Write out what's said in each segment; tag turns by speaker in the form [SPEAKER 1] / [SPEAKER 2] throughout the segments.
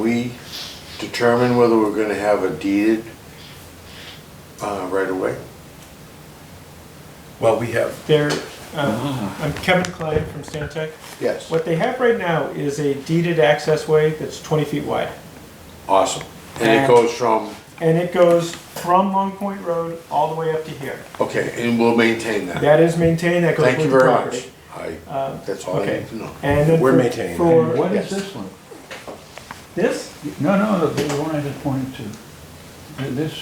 [SPEAKER 1] We determine whether we're gonna have a deeded uh, right away.
[SPEAKER 2] Well, we have,
[SPEAKER 3] There, uh,
[SPEAKER 4] Ah.
[SPEAKER 3] I'm Kevin Clay from Stantec.
[SPEAKER 1] Yes.
[SPEAKER 3] What they have right now is a deeded access way that's 20 feet wide.
[SPEAKER 1] Awesome. And it
[SPEAKER 3] And-
[SPEAKER 1] goes from,
[SPEAKER 3] And it goes from Long Point Road all the way up to here.
[SPEAKER 1] okay, and we'll maintain that.
[SPEAKER 3] That is maintained, that goes
[SPEAKER 1] Thank you
[SPEAKER 3] with the
[SPEAKER 1] very much.
[SPEAKER 3] property.
[SPEAKER 1] I,
[SPEAKER 3] Um,
[SPEAKER 1] that's all I
[SPEAKER 3] okay.
[SPEAKER 1] need to know.
[SPEAKER 3] And then
[SPEAKER 2] We're
[SPEAKER 3] for-
[SPEAKER 2] maintaining that.
[SPEAKER 3] for-
[SPEAKER 4] And what
[SPEAKER 1] Yes.
[SPEAKER 4] is this one?
[SPEAKER 3] This,
[SPEAKER 4] No, no, the big one I just pointed to. This,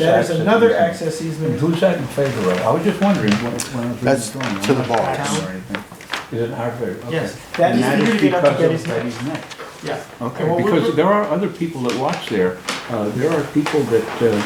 [SPEAKER 3] that is
[SPEAKER 4] access
[SPEAKER 3] another
[SPEAKER 4] easement.
[SPEAKER 3] access
[SPEAKER 4] And
[SPEAKER 3] easement.
[SPEAKER 4] who's that in favor of? I was just wondering when, when I was. reading
[SPEAKER 1] That's
[SPEAKER 4] the drawing, I'm
[SPEAKER 1] to the
[SPEAKER 4] not
[SPEAKER 1] box.
[SPEAKER 4] talking or anything. Is it our favor? Okay.
[SPEAKER 3] Yes, that is
[SPEAKER 4] And
[SPEAKER 3] easier to get up to
[SPEAKER 4] because
[SPEAKER 3] Betty's
[SPEAKER 4] of
[SPEAKER 3] neck.
[SPEAKER 4] Betty's neck.
[SPEAKER 3] Yeah. And what
[SPEAKER 4] Okay,
[SPEAKER 3] we're-
[SPEAKER 4] because there are other people that watch there. Uh, there are people that,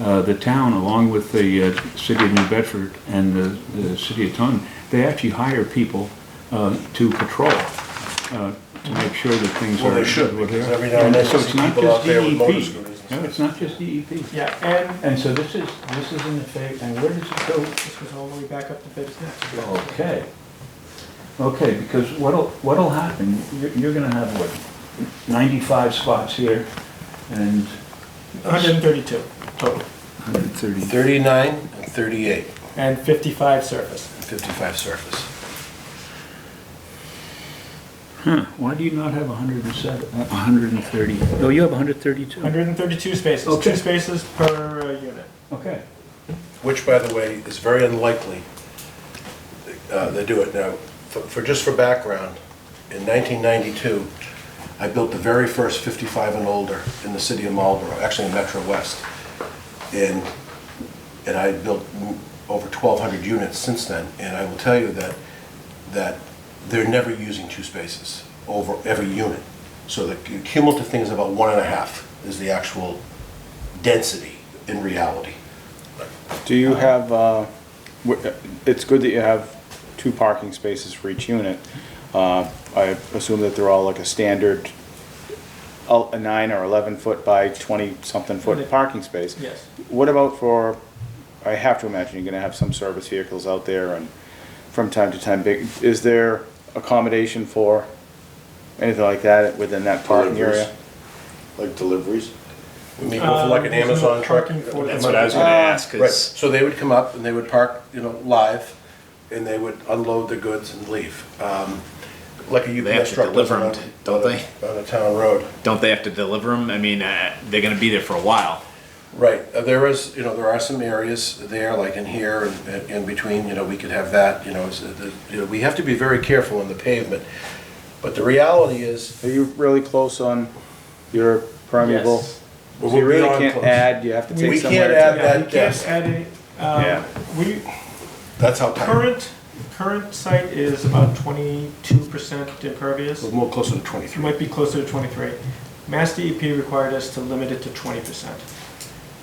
[SPEAKER 4] uh, uh, the town, along with the, uh, city of New Bedford and the, the city of Taunton, they actually hire people, uh, to patrol, uh, to make sure that things are.
[SPEAKER 2] well, they should,
[SPEAKER 4] what they
[SPEAKER 2] because
[SPEAKER 4] are.
[SPEAKER 2] every now and then
[SPEAKER 4] so
[SPEAKER 2] you
[SPEAKER 4] it's
[SPEAKER 2] see
[SPEAKER 4] not
[SPEAKER 2] people
[SPEAKER 4] just
[SPEAKER 2] out there with
[SPEAKER 4] DEP.
[SPEAKER 2] motor scooters.
[SPEAKER 4] No, it's not just DEP.
[SPEAKER 3] Yeah, and
[SPEAKER 4] And so this is, this is in the phase, and where does it go?
[SPEAKER 3] this goes all the way back up to Betty's neck.
[SPEAKER 4] Okay. Okay, because what'll, what'll happen, you're, you're gonna have what, ninety-five spots here and
[SPEAKER 3] 132 total,
[SPEAKER 4] hundred and thirty.
[SPEAKER 2] Thirty-nine and thirty-eight,
[SPEAKER 3] and 55 surface.
[SPEAKER 2] fifty-five surface.
[SPEAKER 4] Huh, why do you not have hundred and seven, hundred and thirty? No, you have hundred and thirty-two.
[SPEAKER 3] 132 spaces,
[SPEAKER 4] Okay.
[SPEAKER 3] two spaces per uh, unit.
[SPEAKER 4] Okay.
[SPEAKER 2] Which, by the way, is very unlikely, uh, they do it now. For, for- just for background, in nineteen ninety-two, I built the very first fifty-five and older in the city of Marlboro, actually in Metro West. And, and I built m- over twelve hundred units since then, and I will tell you that, that they're never using two spaces over every unit. So the cu- cumulative thing is about one and a half is the actual density in reality.
[SPEAKER 5] Do you have, uh, w- it's good that you have two parking spaces for each unit. Uh, I assume that they're all like a standard, el- a nine or 11 foot by 20 something foot parking space.
[SPEAKER 3] Yes.
[SPEAKER 5] What about for, I have to imagine you're going to have some service vehicles out there and from time to time, big. is there accommodation for anything like that within that parking
[SPEAKER 1] Deliveries.
[SPEAKER 5] area?
[SPEAKER 1] Like deliveries?
[SPEAKER 2] We mean, both like an
[SPEAKER 3] Um, there's no
[SPEAKER 2] Amazon truck.
[SPEAKER 3] parking for
[SPEAKER 2] That's
[SPEAKER 3] them.
[SPEAKER 2] what I was
[SPEAKER 5] gonna
[SPEAKER 2] ask, Right, so they would come up and they would park, you know, live, and they would unload the goods and leave. Um, Like a UPS
[SPEAKER 6] to
[SPEAKER 2] truck.
[SPEAKER 6] deliver
[SPEAKER 2] does on
[SPEAKER 6] 'em,
[SPEAKER 2] a-
[SPEAKER 6] don't
[SPEAKER 2] on a- On a town road.
[SPEAKER 6] Don't they have to deliver them? I mean, uh, they're going to be there for a while.
[SPEAKER 2] Right, Uh, there is, you know, there are some areas there, like in here and- and in between, you know, we could have that, you know, is, uh, the- you know, we have to be very careful on the pavement. But the reality is,
[SPEAKER 5] Are you really close on your permeable?
[SPEAKER 3] Yes.
[SPEAKER 2] Well,
[SPEAKER 5] So you
[SPEAKER 2] we're
[SPEAKER 5] really
[SPEAKER 2] beyond
[SPEAKER 5] can't
[SPEAKER 2] close.
[SPEAKER 5] add, you have to
[SPEAKER 3] We
[SPEAKER 5] take
[SPEAKER 2] can't
[SPEAKER 5] somewhere. to-
[SPEAKER 3] Yeah,
[SPEAKER 2] add
[SPEAKER 3] we can't
[SPEAKER 2] that desk.
[SPEAKER 3] add any,
[SPEAKER 5] Yeah.
[SPEAKER 3] um, we,
[SPEAKER 2] that's how tight,
[SPEAKER 3] current, current site is about twenty-two percent impervious.
[SPEAKER 2] we're more closer to
[SPEAKER 3] It
[SPEAKER 2] 23.
[SPEAKER 3] might be closer to twenty-three. Mass DEP required us to limit it to twenty percent.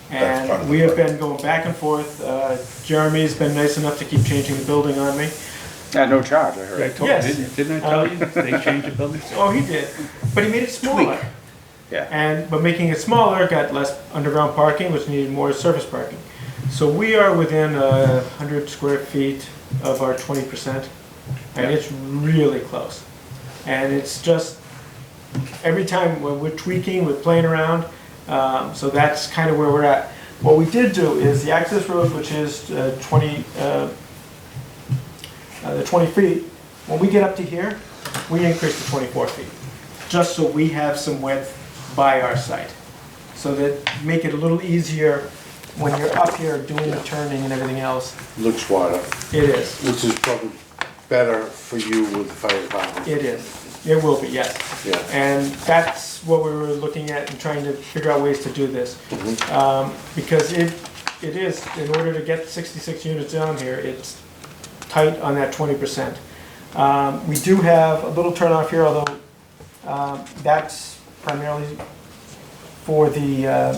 [SPEAKER 2] That's part
[SPEAKER 3] And
[SPEAKER 2] of the
[SPEAKER 3] we have
[SPEAKER 2] plan.
[SPEAKER 3] been going back and forth. Uh, Jeremy's been nice enough to keep changing the building on me.
[SPEAKER 5] At no charge, I heard.
[SPEAKER 3] Yes.
[SPEAKER 4] Didn't didn't I tell you, they changed the building?
[SPEAKER 3] Oh, he did, but he made it smaller.
[SPEAKER 5] Yeah.
[SPEAKER 3] And, but making it smaller got less underground parking, which needed more surface parking. So we are within a hundred square feet of our twenty percent, and
[SPEAKER 5] Yeah.
[SPEAKER 3] it's really close. And it's just, every time when we're tweaking, we're playing around, um, so that's kind of where we're at. What we did do is the access road, which is uh, twenty, uh, uh, the twenty feet, when we get up to here, we increase to twenty-four feet just so we have some width by our site. So that make it a little easier when you're up here doing the turning and everything else.
[SPEAKER 1] Looks wider,
[SPEAKER 3] It is,
[SPEAKER 1] which is probably better for you with the fire department.
[SPEAKER 3] it is, it will be, yes.
[SPEAKER 1] Yeah.
[SPEAKER 3] And that's what we were looking at and trying to figure out ways to do this. Um, Because it, it is, in order to get sixty-six units down here, it's tight on that twenty percent. Um, We do have a little turnoff here, although um, that's primarily for the uh,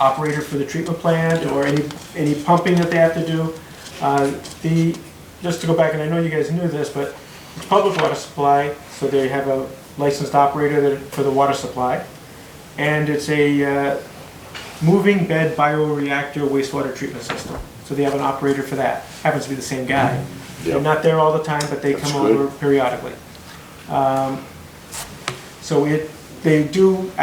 [SPEAKER 3] operator for the treatment plant or any, any pumping that they have to do. Uh, The, just to go back, and I know you guys knew this, but it's public water supply, so they have a licensed operator that- for the water supply. And it's a uh, moving bed bioreactor wastewater treatment system. So they have an operator for that. Happens to be the same guy. They're
[SPEAKER 1] Mm-hmm. Yep.
[SPEAKER 3] not there all the time, but they
[SPEAKER 1] That's
[SPEAKER 3] come
[SPEAKER 1] good.
[SPEAKER 3] over periodically. Um, So it, they do